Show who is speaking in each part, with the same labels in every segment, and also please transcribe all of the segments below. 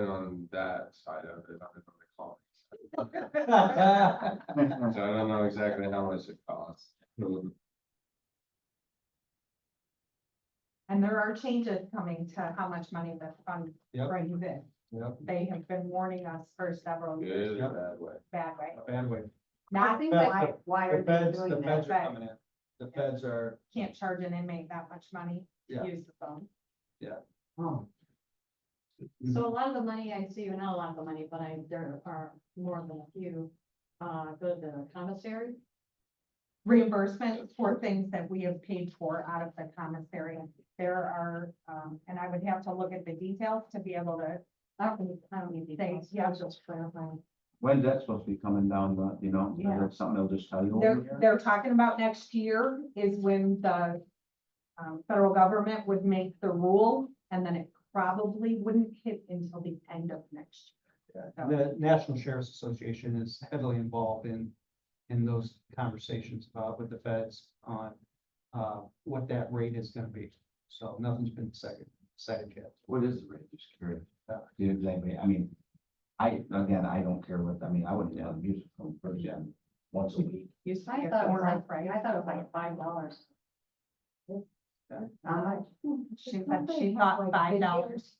Speaker 1: on that side of it, I'm gonna call.
Speaker 2: Yeah,
Speaker 1: So I don't know exactly how much it costs.
Speaker 3: And there are changes coming to how much money the fund
Speaker 2: Yep.
Speaker 3: brings in. They have been warning us for several years
Speaker 1: Good or bad way.
Speaker 3: bad way.
Speaker 2: bandwidth.
Speaker 3: Now, I think why, why
Speaker 2: The
Speaker 3: are they
Speaker 2: feds, the
Speaker 3: doing
Speaker 2: feds
Speaker 3: that?
Speaker 2: are
Speaker 3: But
Speaker 2: coming in. The feds are,
Speaker 3: can't charge an inmate that much money
Speaker 2: Yeah.
Speaker 3: to use the phone.
Speaker 4: So a lot of the money I see, or not a lot of the money, but I, there are more than a few, uh, go to the commissary.
Speaker 3: Reimbursement for things that we have paid for out of the commissary. There are, um, and I would have to look at the details to be able to uh,
Speaker 4: I don't need, I don't need the
Speaker 3: say,
Speaker 4: details.
Speaker 3: yeah,
Speaker 4: Just clarifying.
Speaker 5: When's that supposed to be coming down, the you know, is
Speaker 3: Yeah.
Speaker 5: that something they'll just tell you over
Speaker 3: They're,
Speaker 5: here?
Speaker 3: they're talking about next year is when the um, federal government would make the rule, and then it probably wouldn't hit until the end of next
Speaker 2: the National Sheriff's Association is heavily involved in, in those conversations about with the feds on, uh, what that rate is gonna be. So nothing's been decided, decided yet.
Speaker 5: What is the rate, just curious?
Speaker 2: Yeah.
Speaker 5: Do you, anybody, I mean, I, again, I don't care what, I mean, I wouldn't have music from first gen once a week.
Speaker 3: year.
Speaker 4: I thought it was like, I thought it was like five dollars.
Speaker 3: She said she thought five dollars.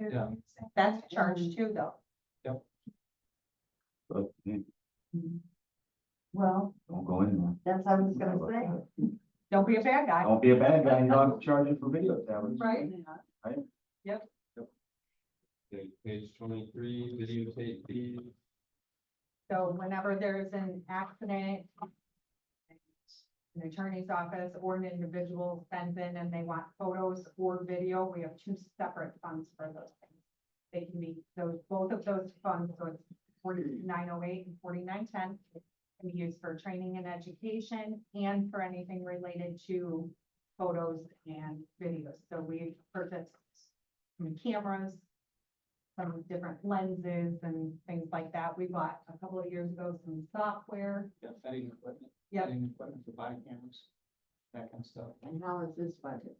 Speaker 2: Yeah.
Speaker 3: That's a charge
Speaker 4: Mm-hmm.
Speaker 3: too, though.
Speaker 5: But, hey,
Speaker 4: Well,
Speaker 5: don't go in there.
Speaker 4: that's what I was gonna say.
Speaker 3: Don't be a bad guy,
Speaker 5: Don't be a bad guy, you know, I'm charging for video tablets.
Speaker 3: right?
Speaker 1: Okay, Page twenty-three, videotape fees.
Speaker 3: So whenever there's an accident. An attorney's office or an individual sends in and they want photos or video, we have two separate funds for those things. They can be, those, both of those funds, so it's forty-nine oh eight and forty-nine ten. Can be used for training and education and for anything related to photos and videos, so we've purchased. some Cameras, some different lenses and things like that. We bought a couple of years ago some software.
Speaker 2: Yeah, vetting equipment.
Speaker 3: Yep.
Speaker 2: vetting Equipment for body cameras, that kind of stuff.
Speaker 4: And how is this budget?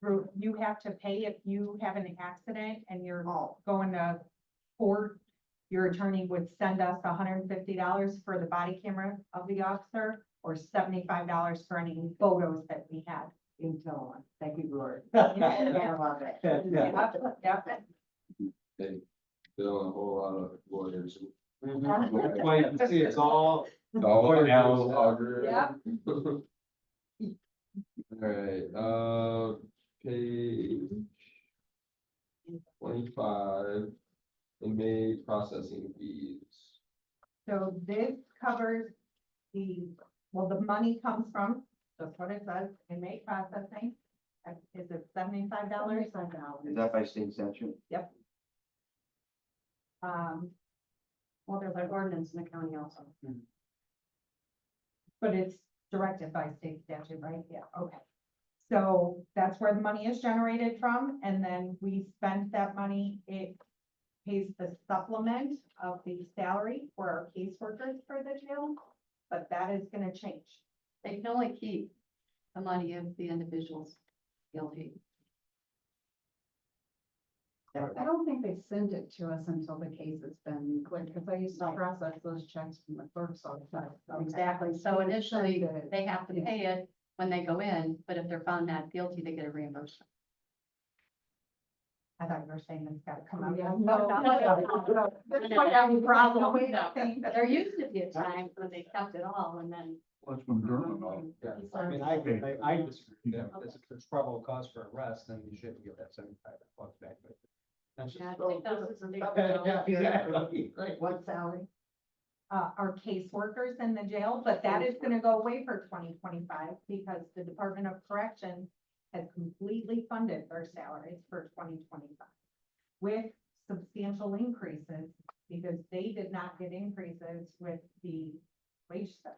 Speaker 3: Through, you have to pay if you have an accident and you're
Speaker 4: Oh,
Speaker 3: going to court. Your attorney would send us hundred and fifty dollars for the body camera of the officer or seventy-five dollars for any photos that we had.
Speaker 4: until, thank you, Lord.
Speaker 2: Yeah,
Speaker 4: I love it.
Speaker 2: yeah.
Speaker 3: Yep.
Speaker 1: They bill a whole lot of lawyers. Mm-hmm.
Speaker 2: That's why you can see it's all,
Speaker 1: All
Speaker 2: Lawyers.
Speaker 1: auger.
Speaker 3: Yep.
Speaker 1: All right, uh, page twenty-five, inmate processing fees.
Speaker 3: So this covers the, well, the money comes from, that's what it says, inmate processing. Uh, Is it seventy-five dollars?
Speaker 5: Is that by state statute?
Speaker 3: Um,
Speaker 4: Well, there's an ordinance in the county also.
Speaker 3: But it's directed by state statute, right? Yeah, okay. So that's where the money is generated from, and then we spend that money, it pays the supplement of the salary for our caseworkers for the jail, but that is gonna change.
Speaker 4: They can only keep the money if the individual's guilty.
Speaker 6: I don't think they send it to us until the case has been cleared, because I used to
Speaker 4: Right.
Speaker 6: process those checks from the clerk's office.
Speaker 4: Exactly, so initially,
Speaker 6: Send it.
Speaker 4: they have to pay it when they go in, but if they're found not guilty, they get a reimbursement.
Speaker 3: I thought you were saying that's gotta come out.
Speaker 6: Yeah.
Speaker 3: That's why I have a problem with
Speaker 4: No.
Speaker 3: saying that.
Speaker 4: There used to be a time when they kept it all and then.
Speaker 5: Well, it's from
Speaker 2: yeah, I mean, I, I, I disagree, with that. If there's probable cause for arrest, then you should give that seventy-five bucks back, but that's just.
Speaker 4: Yeah, I think that was-
Speaker 2: Yeah, exactly, right.
Speaker 6: What salary?
Speaker 3: uh, our caseworkers in the jail, but that is gonna go away for twenty twenty-five because the Department of Correction has completely funded their salaries for twenty twenty-five with substantial increases because they did not get increases with the wage study.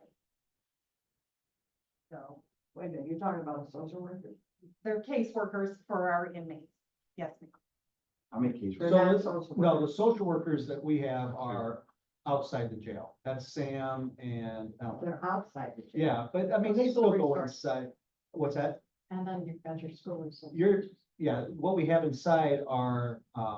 Speaker 3: So
Speaker 4: Wait a minute, you're talking about a social worker?
Speaker 3: they're caseworkers for our inmates. Yes, ma'am.
Speaker 5: How many cases?
Speaker 2: So,
Speaker 4: not
Speaker 2: let's-
Speaker 4: social
Speaker 2: no, the social workers that we have are outside the jail. That's Sam and, Ellen.
Speaker 4: They're outside the
Speaker 2: yeah, but I mean, they still go inside. What's that?
Speaker 4: And then you've got your school. and so-
Speaker 2: You're, yeah, what we have inside are, uh,